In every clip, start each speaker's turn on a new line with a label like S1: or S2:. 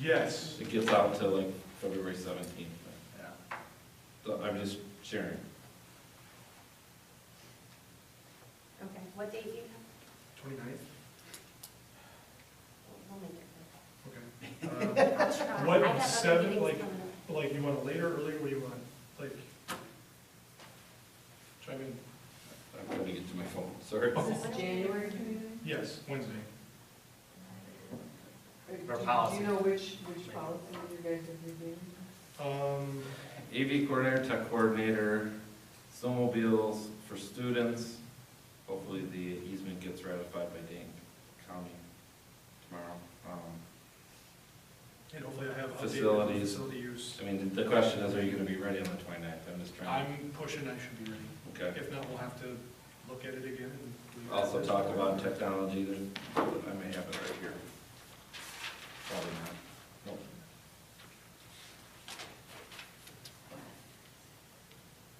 S1: Yes.
S2: It gets out until like February seventeenth.
S1: Yeah.
S2: So I'm just sharing.
S3: Okay, what date do you have?
S1: Twenty-ninth,
S3: We'll make it.
S1: okay.
S3: I'll try.
S1: What,
S3: I have other
S1: seven,
S3: meetings
S1: like-
S3: coming
S1: Uh,
S3: up.
S1: Like, you want it later, earlier, what do you want, like? Try in,
S2: I'm trying to get to my phone, sorry.
S3: Is this January?
S1: yes, Wednesday.
S4: Or policy. Do you know which, which policy you guys are reviewing?
S1: Um,
S2: AV coordinator, tech coordinator, snowmobiles for students. Hopefully the easement gets ratified by Dane County tomorrow. Um,
S1: and hopefully I have updated
S2: Facilities.
S1: facility use.
S2: I mean, the question is, are you gonna be ready on the 29th? I'm just trying.
S1: I'm pushing, I should be ready.
S2: Okay.
S1: If not, we'll have to look at it again. and-
S2: Also talk about technology, there's, I may have it right here. Probably not. Nope.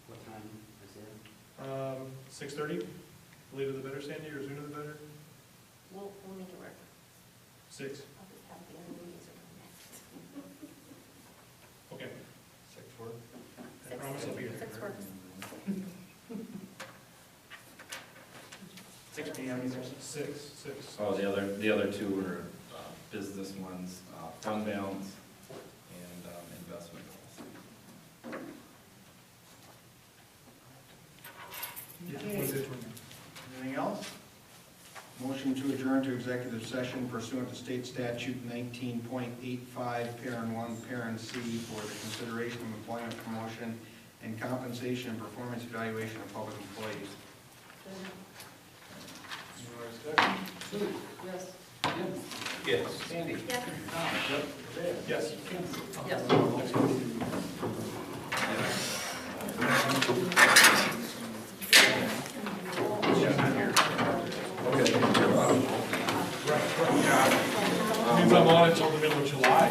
S5: What time is it?
S1: Um, six-thirty, later the better, Sandy, or sooner the better?
S3: We'll, we'll make it work.
S1: Six,
S3: I'll just have the other meetings around that.
S1: okay.
S5: Six four.
S1: I promise I'll be here.
S3: Six works.
S4: Six P M, you said?
S1: Six, six.
S2: Oh, the other, the other two were uh, business ones, uh, fund balance and um, investment.
S1: Yeah,
S4: Okay.
S1: Wednesday, 29th.
S4: Anything else?
S6: Motion to adjourn to executive session pursuant to state statute nineteen point eight five, parent one, parent C, for the consideration of employment promotion and compensation and performance evaluation of public employees.
S4: Any more discussion? Sue?
S3: Yes.
S4: Jim?
S2: Yes.
S4: Sandy?
S3: Yes.
S4: Tom? Dave?
S1: Yes.
S4: Yes.
S1: Means I'm on until the middle of July.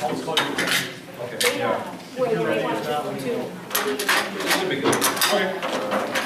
S1: I'll just call you.
S2: Okay, yeah.
S3: Wait, we want to do.
S2: Should be good.
S1: Okay.